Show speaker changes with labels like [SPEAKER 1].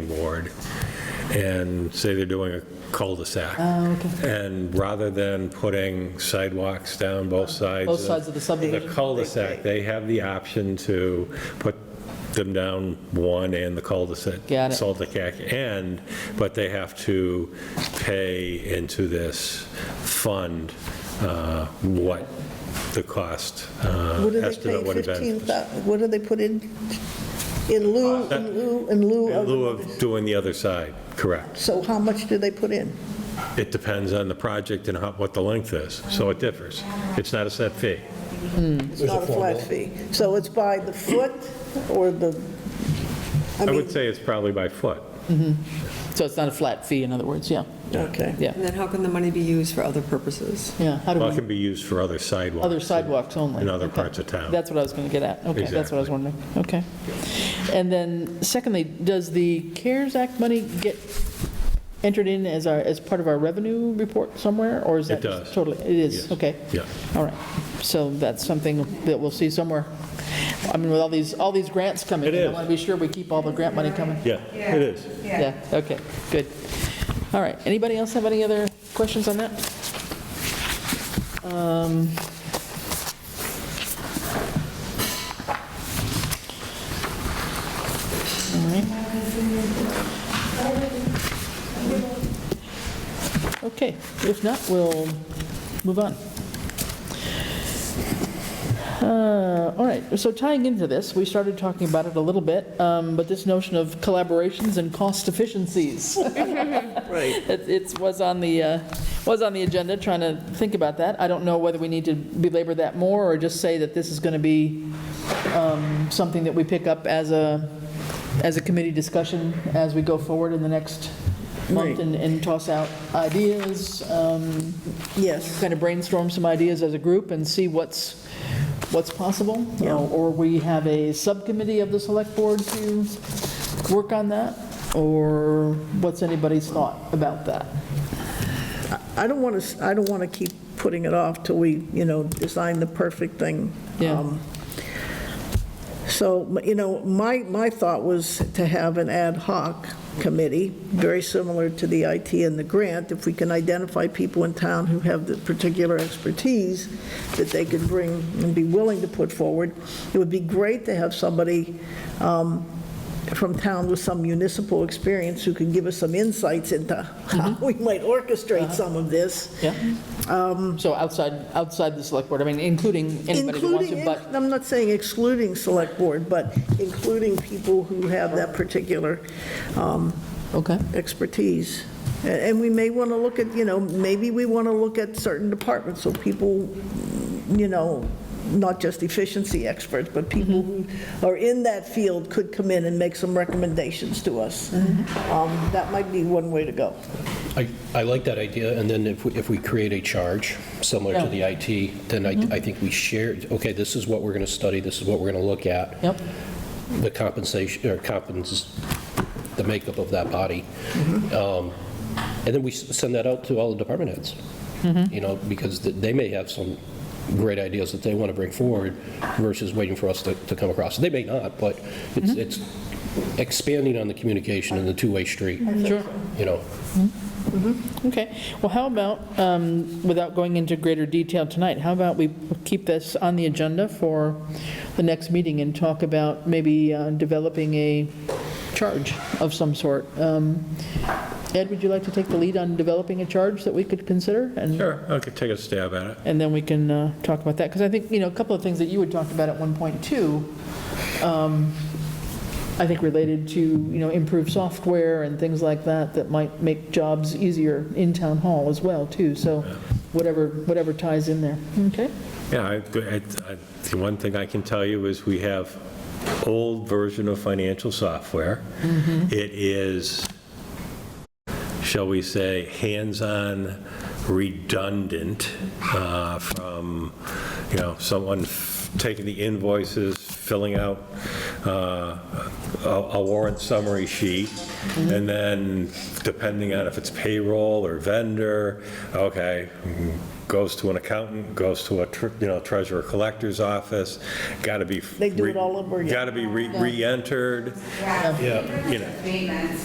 [SPEAKER 1] planning board and say they're doing a cul-de-sac. And rather than putting sidewalks down both sides.
[SPEAKER 2] Both sides of the subdivision?
[SPEAKER 1] The cul-de-sac, they have the option to put them down one and the cul-de-sac.
[SPEAKER 2] Got it.
[SPEAKER 1] Salticac end, but they have to pay into this fund uh, what the cost uh,
[SPEAKER 3] What do they
[SPEAKER 1] estimate would
[SPEAKER 3] pay
[SPEAKER 1] have been.
[SPEAKER 3] fifteen thousand, what do they put in, in lieu, in lieu, in lieu
[SPEAKER 1] Uh, In lieu
[SPEAKER 3] of?
[SPEAKER 1] of doing the other side, correct.
[SPEAKER 3] So how much do they put in?
[SPEAKER 1] It depends on the project and how- what the length is, so it differs. It's not a set fee.
[SPEAKER 3] It's not a flat fee. So it's by the foot or the, I
[SPEAKER 1] I
[SPEAKER 3] mean,
[SPEAKER 1] would say it's probably by foot.
[SPEAKER 2] So it's not a flat fee, in other words, yeah,
[SPEAKER 3] okay.
[SPEAKER 2] yeah,
[SPEAKER 4] And then how can the money be used for other purposes?
[SPEAKER 2] yeah. How do
[SPEAKER 1] Well, it
[SPEAKER 2] we,
[SPEAKER 1] can be used for other sidewalks.
[SPEAKER 2] other sidewalks only?
[SPEAKER 1] In other
[SPEAKER 2] Okay.
[SPEAKER 1] parts of town.
[SPEAKER 2] That's what I was going to get at. Okay, that's what I
[SPEAKER 1] Exactly.
[SPEAKER 2] was wondering. Okay. And then secondly, does the CARES Act money get entered in as our, as part of our revenue report somewhere? Or is
[SPEAKER 1] It
[SPEAKER 2] that just
[SPEAKER 1] does.
[SPEAKER 2] totally? It is,
[SPEAKER 1] Yes.
[SPEAKER 2] okay.
[SPEAKER 1] Yeah.
[SPEAKER 2] All right. So that's something that we'll see somewhere. I mean, with all these, all these grants coming
[SPEAKER 1] It
[SPEAKER 2] in, I
[SPEAKER 1] is.
[SPEAKER 2] want to be sure we keep all the grant money coming.
[SPEAKER 1] Yeah, it is.
[SPEAKER 2] Yeah, okay, good. All right, anybody else have any other questions on that? Um, all right. Okay, if not, we'll move on. Uh, All right, so tying into this, we started talking about it a little bit, um, but this notion of collaborations and cost efficiencies.
[SPEAKER 3] Right.
[SPEAKER 2] It it's- was on the, uh, was on the agenda, trying to think about that. I don't know whether we need to belabor that more or just say that this is going to be um, something that we pick up as a, as a committee discussion as we go forward in the next month
[SPEAKER 3] Right.
[SPEAKER 2] and and toss out ideas, um,
[SPEAKER 3] Yes,
[SPEAKER 2] kind of brainstorm some ideas as a group and see what's, what's possible? Uh,
[SPEAKER 3] Yeah.
[SPEAKER 2] Or we have a subcommittee of the select board to work on that? Or what's anybody's thought about that?
[SPEAKER 3] I don't want to, I don't want to keep putting it off till we, you know, design the perfect thing.
[SPEAKER 2] Yeah.
[SPEAKER 3] Um, So, you know, my, my thought was to have an ad hoc committee, very similar to the IT and the grant, if we can identify people in town who have the particular expertise that they could bring and be willing to put forward. It would be great to have somebody um, from town with some municipal experience who could give us some insights into how we might orchestrate some of this.
[SPEAKER 2] Yeah? Um, So outside, outside the select board, I mean, including anybody who wants to,
[SPEAKER 3] Including,
[SPEAKER 2] but,
[SPEAKER 3] I'm not saying excluding select board, but including people who have that particular um,
[SPEAKER 2] okay,
[SPEAKER 3] expertise. A- And we may want to look at, you know, maybe we want to look at certain departments, so people, you know, not just efficiency experts, but people who
[SPEAKER 2] Mm-hmm.
[SPEAKER 3] are in that field could come in and make some recommendations to us.
[SPEAKER 2] Mm-hmm.
[SPEAKER 3] Um, That might be one way to go.
[SPEAKER 5] I, I like that idea, and then if, we- if we create a charge similar to the IT, then I, I think we share, okay, this is what we're going to study, this is what we're going to look at,
[SPEAKER 2] yep,
[SPEAKER 5] the compensation, or compens, the makeup of that body. Um, And then we s- send that out to all the department heads, you know, because th- they may have some great ideas that they want to bring forward versus waiting for us to, to come across. They may not, but it's, it's expanding on the communication and the two-way street,
[SPEAKER 2] sure.
[SPEAKER 5] you know.
[SPEAKER 2] Okay, well, how about, um, without going into greater detail tonight, how about we keep this on the agenda for the next meeting and talk about maybe uh, developing a charge of some sort? Um, Ed, would you like to take the lead on developing a charge that we could consider? And-
[SPEAKER 1] Sure, I could take a stab at it.
[SPEAKER 2] And then we can uh, talk about that, because I think, you know, a couple of things that you had talked about at 1.2, um, I think related to, you know, improved software and things like that, that might make jobs easier in town hall as well, too, so whatever, whatever ties in there, okay?
[SPEAKER 1] Yeah, I- I- I- the one thing I can tell you is we have old version of financial software.
[SPEAKER 2] Mm-hmm.
[SPEAKER 1] It is, shall we say, hands-on redundant uh, from, you know, someone f- taking the invoices, filling out uh, a a warrant summary sheet,
[SPEAKER 3] Mm-hmm.
[SPEAKER 1] and then depending on if it's payroll or vendor, okay, goes to an accountant, goes to a, tr- you know, treasurer collector's office, got to be.
[SPEAKER 3] They do it all over again.
[SPEAKER 1] Got to be re- re-entered,
[SPEAKER 5] Yeah.
[SPEAKER 1] you know.
[SPEAKER 6] Maintenance.